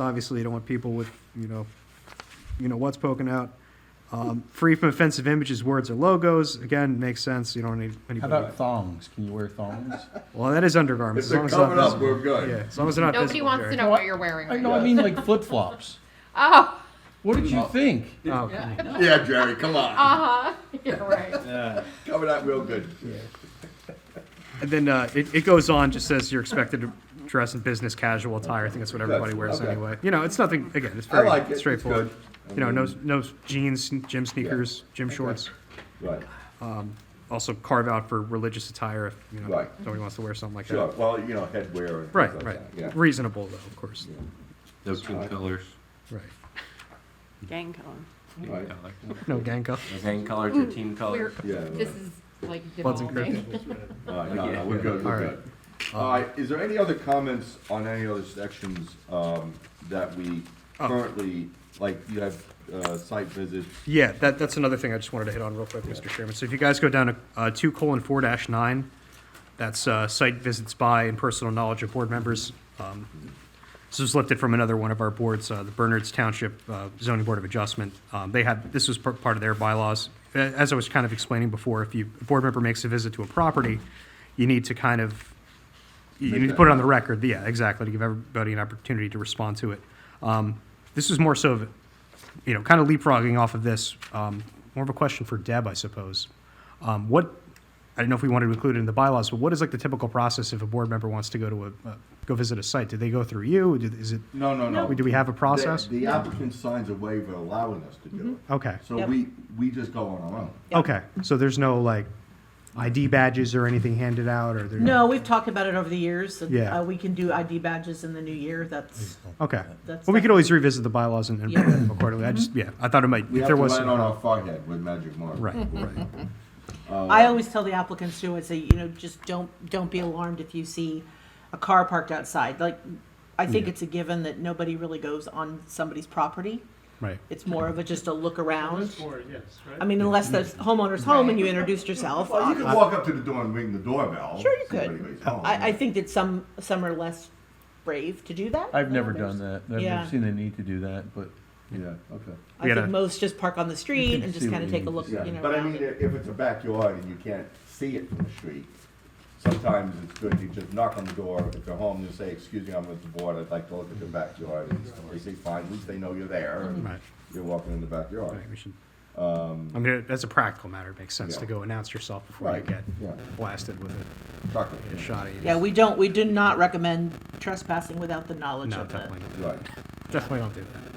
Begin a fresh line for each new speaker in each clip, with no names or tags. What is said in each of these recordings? Obviously, you don't want people with, you know, you know what's poking out. Um, free from offensive images, words, or logos. Again, makes sense. You don't need
How
anybody.
about thongs? Can you wear thongs?
well, that is undergarments.
If
as long
they're
as it's not
covered up,
visible.
we're
Yeah,
good.
as long as they're not
Nobody
visible,
wants to
Jerry.
know what you're wearing
I
right
know,
now.
I mean like flip flops.
Oh,
What did you think?
Oh, okay.
Yeah, Jerry, come on.
uh-huh, you're right.
Cover that real good.
And then uh, it, it goes on, just says you're expected to dress in business casual attire. I think that's what everybody wears
Okay.
anyway. You know, it's nothing, again, it's
I
very
like it. It's
straightforward.
good. Mm-hmm.
You know, no, no jeans, gym sneakers, gym shorts.
Right,
Also carve out for religious attire if, you know,
Right.
somebody wants to wear something like
sure.
that.
Well, you know, headwear and
Right,
things
right.
like that. Yeah.
Reasonable though, of course.
No two colors.
Right.
Gang color.
Right.
Color.
No gang up.
Gang colors or team
We're,
colors.
Yeah,
this
right.
is like
Bloods and
devolving.
Crips.
All right, no, no, we're good,
All
we're
right.
good. All right, is there any other comments on any other sections, um, that we
Oh.
currently, like, you have, uh, site visits?
Yeah, that, that's another thing I just wanted to hit on real quick, Mr. Chairman. So if you guys go down to uh, two colon four dash nine, that's uh, site visits by and personal knowledge of board members. Um, This was lifted from another one of our boards, uh, the Bernards Township uh, Zoning Board of Adjustment. Um, They had, this was par- part of their bylaws. A- As I was kind of explaining before, if you, a board member makes a visit to a property, you need to kind of you
Make
need to
that
put it on the record, yeah, exactly, to give everybody an opportunity to respond to it. Um, This is more so of, you know, kind of leapfrogging off of this, um, more of a question for Deb, I suppose. Um, What, I don't know if we wanted to include it in the bylaws, but what is like the typical process if a board member wants to go to a, uh, go visit a site? Do they go through you? Do- Is it,
No, no, no.
do we have a process?
The the applicant signs a waiver allowing us to do
Mm-hmm.
it.
Okay,
So
Yep.
we, we just go on our own.
okay, so there's no like ID badges or anything handed out or there?
No, we've talked about it over the years. and,
Yeah.
uh, We can do ID badges in the new year, that's,
Okay, well,
That's
we
not-
could always revisit the bylaws and and
Yeah.
put them accordingly, I just, yeah, I thought it might,
We
if
have
there
to
was.
write on our forehead with magic marker.
Right, right.
I always tell the applicants too, I say, you know, just don't, don't be alarmed if you see a car parked outside. Like, I think it's a given that nobody really goes on somebody's property.
Right.
It's more of a, just a look around.
yes,
I mean, unless the homeowner's home and you introduced yourself.
Well, you could
I,
walk up to the door and ring the doorbell.
Sure you
see if
could.
anybody's home.
I think that some, some are less brave to do that.
I've never done that. I've
Yeah.
never seen the need to do that, but
Yeah, okay.
I
We had
think
a-
most just park on the street and just
see
kind
what
of take
you
a look, you
Yeah,
know.
but I
around
mean,
it.
i- if it's a backyard and you can't see it from the street, sometimes it's good, you just knock on the door, if you're home, you say, excuse me, I'm with the board, I'd like to look at the backyard, and they say, fine, at least they know you're there,
Mm-hmm.
and
Right.
you're walking in the backyard.
Right, we should. I mean, as a practical matter, it makes sense to
Um, Yeah.
go announce yourself before you
Right,
get
yeah.
blasted with a-
Tuck
a
it.
shot at you.
Yeah, we don't, we do not recommend trespassing without the knowledge
No,
of the.
definitely, not.
Right,
definitely don't do that.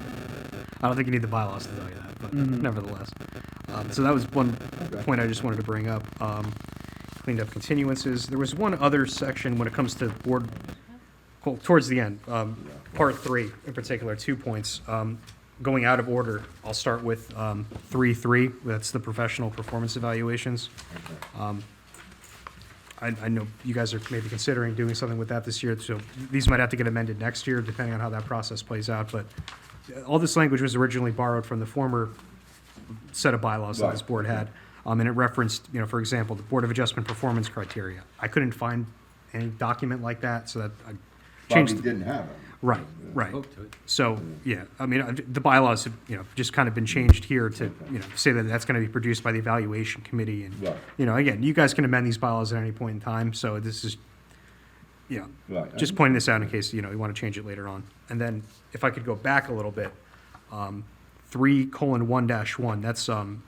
I don't think you need the bylaws to tell you that, but
Mm-hmm.
nevertheless. Um, so that was one point I just wanted to bring up. Um, cleaned up continuances. There was one other section when it comes to board, well, towards the end, um, part three in particular, two points. Um, going out of order, I'll start with, um, three, three, that's the professional performance evaluations. I, I know you guys are maybe considering doing something with that this year, so these might have to get amended next year, depending on how that process plays out, but uh, all this language was originally borrowed from the former set of bylaws that this
Right.
board had, um, and it referenced, you know, for example, the Board of Adjustment performance criteria. I couldn't find any document like that, so that I
probably
changed.
didn't have it.
Right, right.
Spoke Oh, to it.
So, yeah, I mean, I've- the bylaws have, you know, just kind of been changed here to, you know, say that that's gonna be produced by the evaluation committee and,
Right.
you know, again, you guys can amend these bylaws at any point in time, so this is, you know,
Right.
just pointing this out in case, you know, you wanna change it later on. And then, if I could go back a little bit, um, three colon one dash one, that's, um,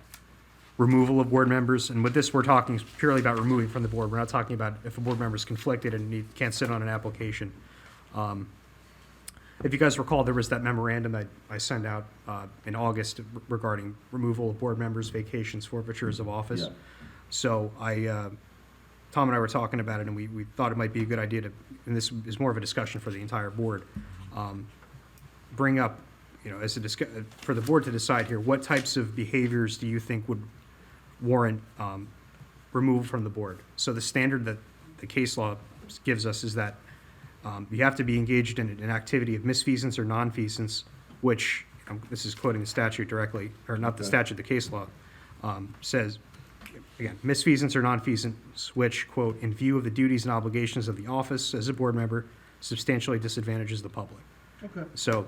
removal of board members, and with this, we're talking purely about removing from the board, we're not talking about if a board member is conflicted and need, can't sit on an application. Um, if you guys recall, there was that memorandum that I sent out uh, in August regarding removal of board members, vacations, forfeitures of office.
Yeah.
So I, uh, Tom and I were talking about it, and we, we thought it might be a good idea to, and this is more of a discussion for the entire board, um, bring up, you know, as a discuss, for the board to decide here, what types of behaviors do you think would warrant um, removal from the board? So the standard that the case law gives us is that um, you have to be engaged in an activity of misfeasance or nonfeasance, which, um, this is quoting the statute directly, or not the
Okay.
statute, the case law, um, says, again, misfeasance or nonfeasance, which, quote, in view of the duties and obligations of the office as a board member, substantially disadvantages the public.
Okay.
So